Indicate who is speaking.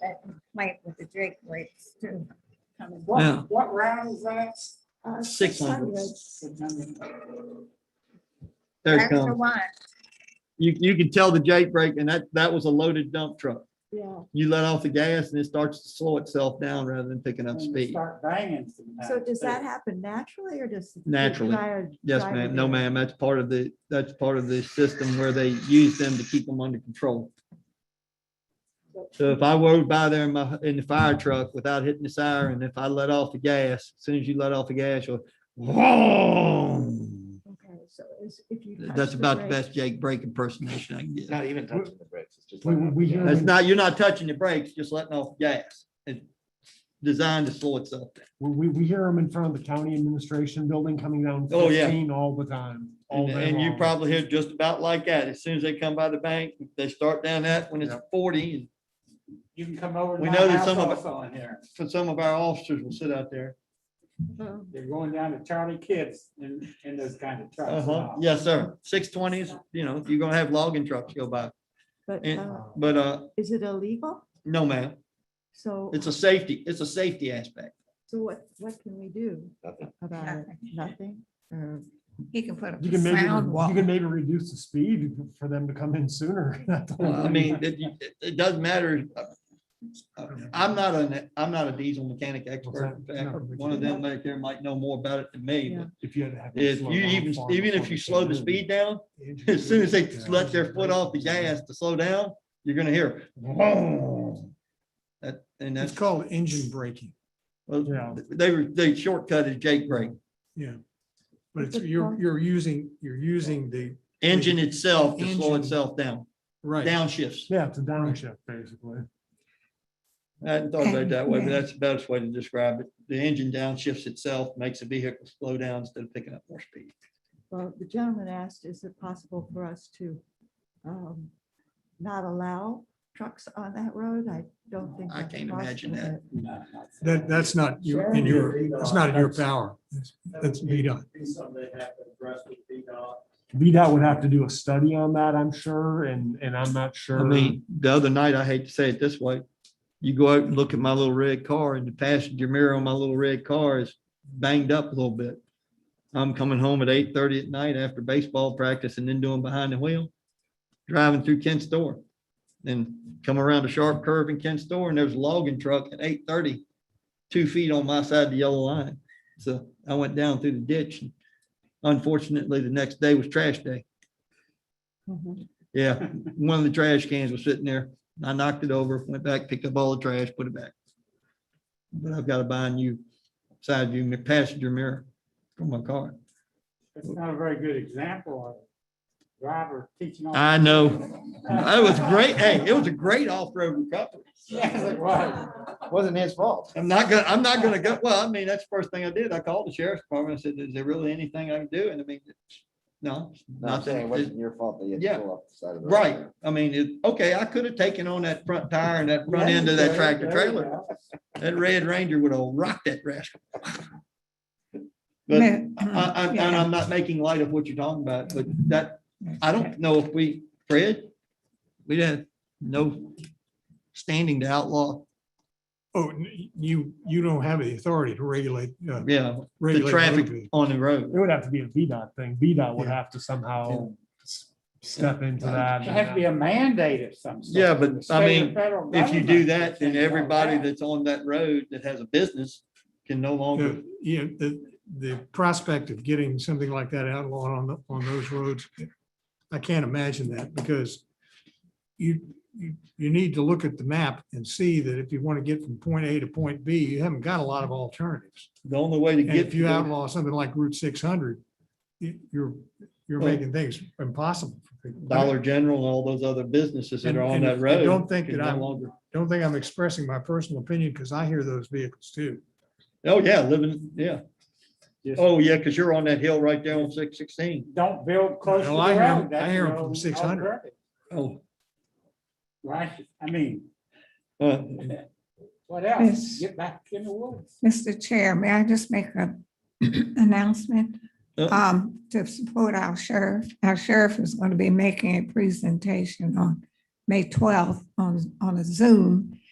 Speaker 1: that complaint with the Drake rates too. coming.
Speaker 2: Yeah.
Speaker 3: What, what round is that?
Speaker 1: Uh,
Speaker 2: Six hundred.
Speaker 3: Six hundred.
Speaker 2: There it
Speaker 1: That's the
Speaker 2: comes.
Speaker 1: one,
Speaker 2: You, you can tell the Jake brake and that, that was a loaded dump truck.
Speaker 4: Yeah,
Speaker 2: You let off the gas and it starts to slow itself down rather than picking up
Speaker 3: And you
Speaker 2: speed.
Speaker 3: Start banging sometimes.
Speaker 4: so does that
Speaker 3: too.
Speaker 4: happen naturally or does? the
Speaker 2: Naturally.
Speaker 4: driver-
Speaker 2: Yes,
Speaker 4: driver
Speaker 2: ma'am.
Speaker 4: do
Speaker 2: No,
Speaker 4: it?
Speaker 2: ma'am. That's part of the, that's part of the system where they use them to keep them under control. So if I rode by there in my, in the fire truck without hitting the siren, if I let off the gas, as soon as you let off the gas, you'll vroom.
Speaker 4: Okay, so is, if you. touch
Speaker 2: That's about the
Speaker 4: brake-
Speaker 2: best Jake brake impersonation I can get.
Speaker 5: Not even touching the brakes. It's just.
Speaker 3: We-
Speaker 5: letting off
Speaker 3: we
Speaker 5: the
Speaker 3: hear
Speaker 5: gas.
Speaker 2: It's not, you're not touching the brakes, just letting off gas. It's designed to slow itself down.
Speaker 6: We, we hear them in front of the county administration building coming down
Speaker 2: Oh, yeah.
Speaker 6: fifteen all the time. all
Speaker 2: And,
Speaker 6: day
Speaker 2: and you
Speaker 6: long.
Speaker 2: probably hear just about like that. As soon as they come by the bank, they start down that when it's forty.
Speaker 3: You can come over to
Speaker 2: We
Speaker 3: my
Speaker 2: know that
Speaker 3: house
Speaker 2: some of it-
Speaker 3: also in here.
Speaker 2: and So some of our officers will sit out there.
Speaker 4: Oh,
Speaker 3: They're going down to Charlie Kids in, in those kind of trucks. and
Speaker 2: Uh-huh.
Speaker 3: all.
Speaker 2: Yes, sir. Six twenties, you know, you're gonna have logging trucks go by.
Speaker 4: But
Speaker 2: And-
Speaker 4: uh,
Speaker 2: But, uh,
Speaker 4: is it illegal?
Speaker 2: no, ma'am,
Speaker 4: So,
Speaker 2: it's a safety, it's a safety aspect.
Speaker 4: so what, what can we do
Speaker 5: Nothing.
Speaker 4: about it?
Speaker 1: Nothing.
Speaker 4: Nothing? Uh, Or-
Speaker 1: he can put up
Speaker 6: You
Speaker 1: a
Speaker 6: can maybe,
Speaker 1: sound wall.
Speaker 6: you can maybe reduce the speed for them to come in sooner. That's all.
Speaker 2: I mean, it, it- it doesn't matter. I'm not an, I'm not a diesel mechanic expert. In fact, One of them back there might know more about it than me, but
Speaker 6: If you had to have. them
Speaker 2: If
Speaker 6: slow
Speaker 2: you
Speaker 6: down
Speaker 2: even,
Speaker 6: far
Speaker 2: even
Speaker 6: before
Speaker 2: if you
Speaker 6: they
Speaker 2: slow the
Speaker 6: come in.
Speaker 2: speed down, as soon as they let their foot off the gas to slow down, you're gonna hear. "Vroom." That, and that's,
Speaker 7: called engine braking,
Speaker 2: well,
Speaker 6: Yeah.
Speaker 2: they were, they shortcutted Jake brake.
Speaker 7: yeah. But it's, you're, you're using, you're using the,
Speaker 2: Engine itself to slow
Speaker 7: Engine.
Speaker 2: itself down,
Speaker 7: right,
Speaker 2: downshifts.
Speaker 6: Yeah, it's a downshift, basically.
Speaker 2: I hadn't thought about it that way, but
Speaker 1: Yeah.
Speaker 2: that's the best way to describe it. The engine downshifts itself, makes the vehicle slow down instead of picking up more speed.
Speaker 4: Well, the gentleman asked, is it possible for us to um, not allow trucks on that road? I don't think.
Speaker 2: I
Speaker 4: that's
Speaker 2: can't imagine
Speaker 4: possible,
Speaker 2: that.
Speaker 3: No, not-
Speaker 7: that, that's not your, in your, it's not in your power. That's- That's VDOT.
Speaker 6: VDOT would have to do a study on that, I'm sure, and, and I'm not sure.
Speaker 2: I mean, the other night, I hate to say it this way, you go out and look at my little red car and the passenger mirror on my little red car is banged up a little bit. I'm coming home at eight thirty at night after baseball practice and then doing behind the wheel, driving through Kent's store. And come around a sharp curve in Kent's store and there's a logging truck at 8:30, two feet on my side of the yellow line. So I went down through the ditch. and Unfortunately, the next day was trash day.
Speaker 4: Mhm.
Speaker 2: Yeah, one of the trash cans was sitting there. I knocked it over, went back, picked up all the trash, put it back. But I've got to buy a new side view, mi- passenger mirror for my car.
Speaker 3: It's not a very good example of driver teaching. off-
Speaker 2: I know. It was great. Hey, it was a great off-road recovery.
Speaker 3: Yes, it was.
Speaker 5: Wasn't his fault.
Speaker 2: I'm not gonna, I'm not gonna go, well, I mean, that's the first thing I did. I called the sheriff's department. I said, is there really anything I can do? And I mean, it's- no,
Speaker 5: No, I'm
Speaker 2: nothing.
Speaker 5: saying it
Speaker 2: It's-
Speaker 5: wasn't your fault that you had
Speaker 2: Yeah.
Speaker 5: to pull off the side of the. road.
Speaker 2: Right. I mean, it, okay, I could have taken on that front tire and that front end of that tractor
Speaker 3: There you
Speaker 2: trailer.
Speaker 3: go.
Speaker 2: That Red Ranger would have rocked that rascal. But I, I, and I'm not making light of what you're talking about, but that, I don't know if we, Fred, we had no standing to outlaw,
Speaker 7: Oh, n- you, you don't have the authority to regulate, uh,
Speaker 2: yeah, the
Speaker 7: regulate. motor
Speaker 2: traffic
Speaker 7: vehicles.
Speaker 2: on the road.
Speaker 6: It would have to be a VDOT thing. VDOT would
Speaker 7: Yeah.
Speaker 6: have to somehow s- step into that.
Speaker 3: It has to be a mandate of some. sort
Speaker 2: Yeah,
Speaker 3: from the
Speaker 2: but, I
Speaker 3: state or
Speaker 2: mean,
Speaker 3: federal
Speaker 2: If you do
Speaker 3: government.
Speaker 2: that, then everybody that's on that road that has a business can no longer,
Speaker 7: The- Yeah, the, the prospect of getting something like that outlawed on, the- on those roads, I can't imagine that because you, you, you need to look at the map and see that if you want to get from point A to point B, you haven't got a lot of alternatives.
Speaker 2: the only way to
Speaker 7: And
Speaker 2: get.
Speaker 7: if you
Speaker 2: to-
Speaker 7: outlaw something like Route six hundred, you, you're, you're
Speaker 2: Well-
Speaker 7: making things impossible. for people.
Speaker 2: Dollar General and all those other businesses that
Speaker 7: And-
Speaker 2: are on
Speaker 7: and
Speaker 2: that
Speaker 7: I
Speaker 2: road.
Speaker 7: don't think
Speaker 2: can
Speaker 7: that
Speaker 2: no
Speaker 7: I'm-
Speaker 2: longer-
Speaker 7: Don't think I'm expressing my personal opinion because I hear those vehicles too.
Speaker 2: Oh, yeah, living, yeah.
Speaker 3: Just
Speaker 2: Oh, yeah, because you're on that hill right there on six sixteen.
Speaker 3: Don't build close to the
Speaker 7: Well, I hear 'em-
Speaker 3: road.
Speaker 7: I
Speaker 3: That's
Speaker 7: hear 'em
Speaker 3: the
Speaker 7: from
Speaker 3: old
Speaker 7: 600.
Speaker 3: alternative,
Speaker 2: Oh.
Speaker 3: Right, I mean,
Speaker 2: uh,
Speaker 3: what
Speaker 1: Yes.
Speaker 3: else? Get back in the woods.
Speaker 1: Mr. Chair, may I just make a announcement?
Speaker 2: Uh.
Speaker 1: Um, to support our sheriff, our sheriff is going to be making a presentation on May twelfth on, on a Zoom.